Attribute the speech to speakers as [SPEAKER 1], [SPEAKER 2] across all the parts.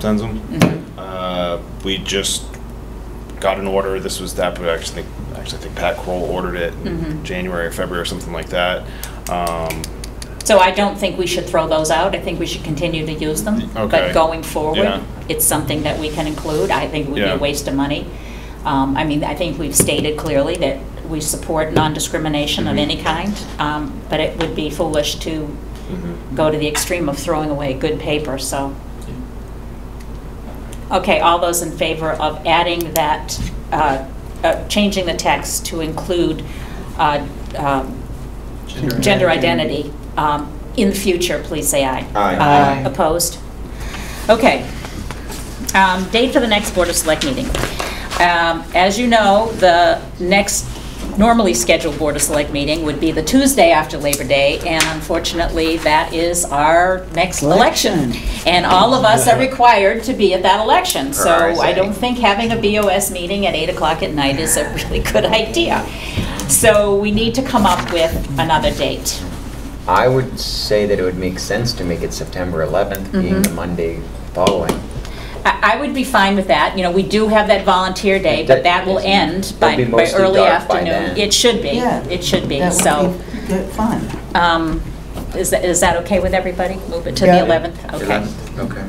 [SPEAKER 1] sends them. Uh, we just got an order. This was that, but I actually think actually I think Pat Kroll ordered it in January or February or something like that. Um,
[SPEAKER 2] So I don't think we should throw those out. I think we should continue to use them.
[SPEAKER 1] Okay.
[SPEAKER 2] But going
[SPEAKER 1] Yeah.
[SPEAKER 2] forward, it's something that we can include. I think it would be
[SPEAKER 1] Yeah.
[SPEAKER 2] a waste of money. Um, I mean, I think we've stated clearly that we support non-discrimination of
[SPEAKER 1] Mhm.
[SPEAKER 2] any kind, um, but it would be foolish to
[SPEAKER 1] Mm-hmm.
[SPEAKER 2] go to the extreme of throwing away good paper, so. Okay, all those in favor of adding that, uh, uh, changing the text to include uh, um, gender identity um, in the future, please say aye.
[SPEAKER 3] Aye.
[SPEAKER 4] Aye.
[SPEAKER 2] Opposed? Okay. Um, Date for the next Board of Select meeting. Um, As you know, the next normally scheduled Board of Select meeting would be the Tuesday after Labor Day, and unfortunately, that is our next election. And all of us are required to be at that election. So I don't think having a BOS meeting at 8 o'clock at night is a really good idea. So we need to come up with another date.
[SPEAKER 3] I would say that it would make sense to make it September 11th, being the Monday following.
[SPEAKER 2] I I would be fine with that. You know, we do have that volunteer day, but that will end by
[SPEAKER 3] It'll be
[SPEAKER 2] by
[SPEAKER 3] mostly
[SPEAKER 2] early
[SPEAKER 3] dark by
[SPEAKER 2] afternoon.
[SPEAKER 3] then.
[SPEAKER 2] It should be,
[SPEAKER 4] Yeah.
[SPEAKER 2] it should be.
[SPEAKER 4] That would
[SPEAKER 2] So,
[SPEAKER 4] be good- Fun.
[SPEAKER 2] um, is that, is that okay with everybody? Move it to the
[SPEAKER 4] Yeah.
[SPEAKER 2] 11th? Okay.
[SPEAKER 3] 11th, Okay.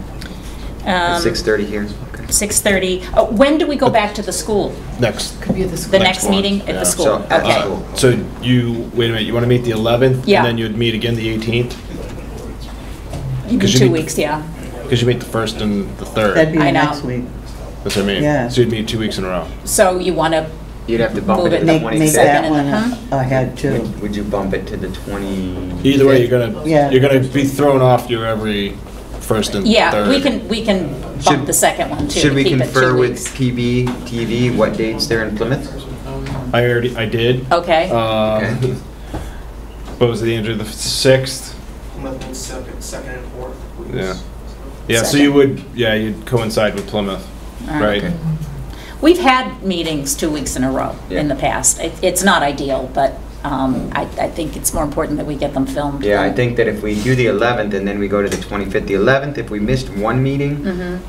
[SPEAKER 2] Um,
[SPEAKER 3] 6:30 here. Okay.
[SPEAKER 2] 6:30. Oh, When do we go back to the school?
[SPEAKER 1] next.
[SPEAKER 4] Could be the school.
[SPEAKER 2] The next
[SPEAKER 1] one.
[SPEAKER 2] meeting at
[SPEAKER 1] Yeah.
[SPEAKER 2] the school?
[SPEAKER 3] So, uh, at the
[SPEAKER 2] Okay.
[SPEAKER 3] school.
[SPEAKER 1] So you wait a minute. You want to meet the 11th,
[SPEAKER 2] Yeah.
[SPEAKER 1] and then you'd meet again the 18th
[SPEAKER 2] In
[SPEAKER 1] 'Cause you
[SPEAKER 2] Two
[SPEAKER 1] need-
[SPEAKER 2] weeks, yeah.
[SPEAKER 1] because you meet the first and the third.
[SPEAKER 4] That'd be
[SPEAKER 2] I
[SPEAKER 4] the
[SPEAKER 2] know.
[SPEAKER 4] next week.
[SPEAKER 1] That's what I mean.
[SPEAKER 4] Yeah.
[SPEAKER 1] So you'd meet two weeks in a row.
[SPEAKER 2] So you want to,
[SPEAKER 3] You'd have to bump
[SPEAKER 2] Move
[SPEAKER 3] it
[SPEAKER 2] it.
[SPEAKER 3] to the
[SPEAKER 4] Make, make
[SPEAKER 3] 26th.
[SPEAKER 4] that
[SPEAKER 2] Second.
[SPEAKER 4] one
[SPEAKER 2] Huh?
[SPEAKER 4] ahead too.
[SPEAKER 3] Would you bump it to the 20?
[SPEAKER 1] Either way, you're gonna
[SPEAKER 4] Yeah.
[SPEAKER 1] you're gonna be thrown off your every first and third.
[SPEAKER 2] yeah, we can, we can bump
[SPEAKER 3] Should-
[SPEAKER 2] the second one too.
[SPEAKER 3] Should
[SPEAKER 2] to
[SPEAKER 3] we
[SPEAKER 2] keep it two
[SPEAKER 3] confer with
[SPEAKER 2] weeks.
[SPEAKER 3] PB TV what dates they're in Plymouth?
[SPEAKER 1] I already I did.
[SPEAKER 2] Okay.
[SPEAKER 1] Uh,
[SPEAKER 3] Okay.
[SPEAKER 1] What was the end of the sixth?
[SPEAKER 5] Plymouth second, second and fourth. please.
[SPEAKER 1] Yeah. Yeah, so you would yeah you'd coincide with Plymouth,
[SPEAKER 2] All
[SPEAKER 1] right?
[SPEAKER 3] Okay.
[SPEAKER 2] We've had meetings two weeks in a row in the past. It- It's not ideal, but um, I I think it's more important that we get them filmed.
[SPEAKER 3] Yeah, I think that if we do the 11th and then we go to the 25th, the 11th, if we missed one meeting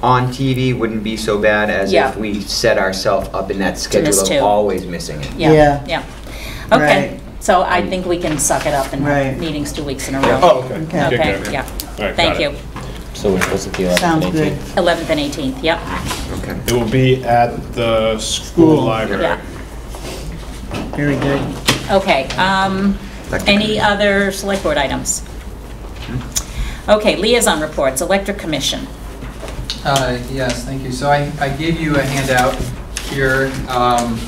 [SPEAKER 3] on TV, wouldn't be so bad as
[SPEAKER 2] Mm-hmm. Yeah.
[SPEAKER 3] if we set ourselves up in that schedule
[SPEAKER 2] miss
[SPEAKER 3] of
[SPEAKER 2] two.
[SPEAKER 3] always missing it.
[SPEAKER 4] Yeah.
[SPEAKER 2] Yeah, yeah. Okay,
[SPEAKER 4] Right.
[SPEAKER 2] so I think we can suck it up and have
[SPEAKER 4] Right.
[SPEAKER 2] meetings two weeks in a
[SPEAKER 3] Yeah.
[SPEAKER 2] row.
[SPEAKER 1] Oh, okay.
[SPEAKER 4] Okay.
[SPEAKER 1] Okay,
[SPEAKER 2] Okay,
[SPEAKER 1] okay.
[SPEAKER 2] yeah.
[SPEAKER 1] All right,
[SPEAKER 2] Thank
[SPEAKER 1] got it.
[SPEAKER 2] you.
[SPEAKER 6] So we're supposed to be
[SPEAKER 4] Sounds
[SPEAKER 6] eleven,
[SPEAKER 4] good.
[SPEAKER 6] eighteen.
[SPEAKER 2] 11th and 18th, yep,
[SPEAKER 3] Okay.
[SPEAKER 1] It will be at the school
[SPEAKER 4] School.
[SPEAKER 1] library.
[SPEAKER 2] yeah.
[SPEAKER 4] Very good.
[SPEAKER 2] Okay, um,
[SPEAKER 3] Electric
[SPEAKER 2] any
[SPEAKER 3] Commission.
[SPEAKER 2] other select board items? Okay, liaison reports, electric commission.
[SPEAKER 7] Uh, Yes, thank you. So I I gave you a handout here um,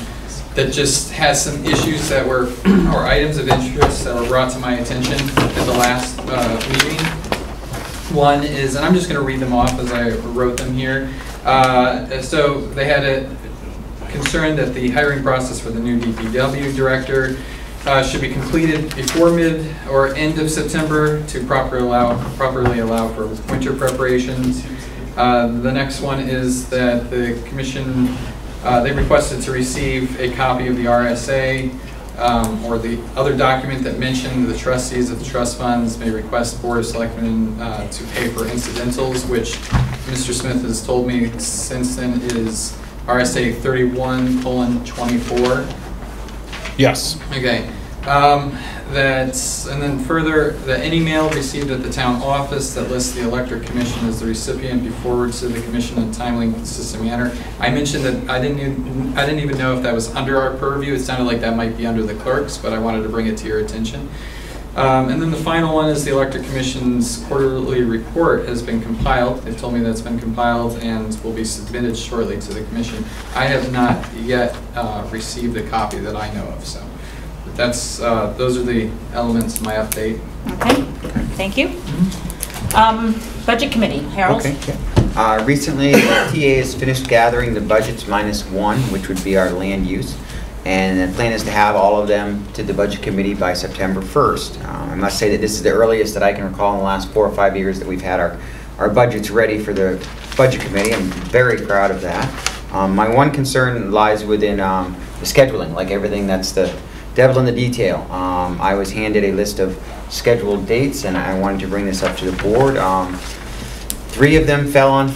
[SPEAKER 7] that just has some issues that were, or items of interest that were brought to my attention at the last uh, meeting. One is, and I'm just going to read them off as I wrote them here. Uh, So they had a concern that the hiring process for the new DPW director uh, should be completed before mid or end of September to proper allow, properly allow for winter preparations. Uh, The next one is that the commission, uh, they requested to receive a copy of the RSA um, or the other document that mentioned the trustees of the trust funds may request Board of Selectmen uh, to pay for incidentals, which Mr. Smith has told me since then is RSA 31 colon 24.
[SPEAKER 1] Yes.
[SPEAKER 7] Okay, um, that's, and then further, that any mail received at the town office that lists the electric commission as the recipient be forwarded to the commission in a timely and consistent manner. I mentioned that I didn't, even- I didn't even know if that was under our purview, it sounded like that might be under the clerks, but I wanted to bring it to your attention. Um, And then the final one is the electric commission's quarterly report has been compiled. They've told me that's been compiled and will be submitted shortly to the commission. I have not yet uh, received a copy that I know of, so that's, uh, those are the elements of my update.
[SPEAKER 2] Okay, thank you. Um, Budget committee, Harold?
[SPEAKER 3] Okay. Uh, Recently, the TA has finished gathering the budgets minus one, which would be our land use. And the plan is to have all of them to the budget committee by September 1st. Um, I must say that this is the earliest that I can recall in the last four or five years that we've had our, our budgets ready for the budget committee. I'm very proud of that. Um, My one concern lies within um, the scheduling, like everything that's the devil in the detail. Um, I was handed a list of scheduled dates, and I wanted to bring this up to the board. Um, Three of them fell on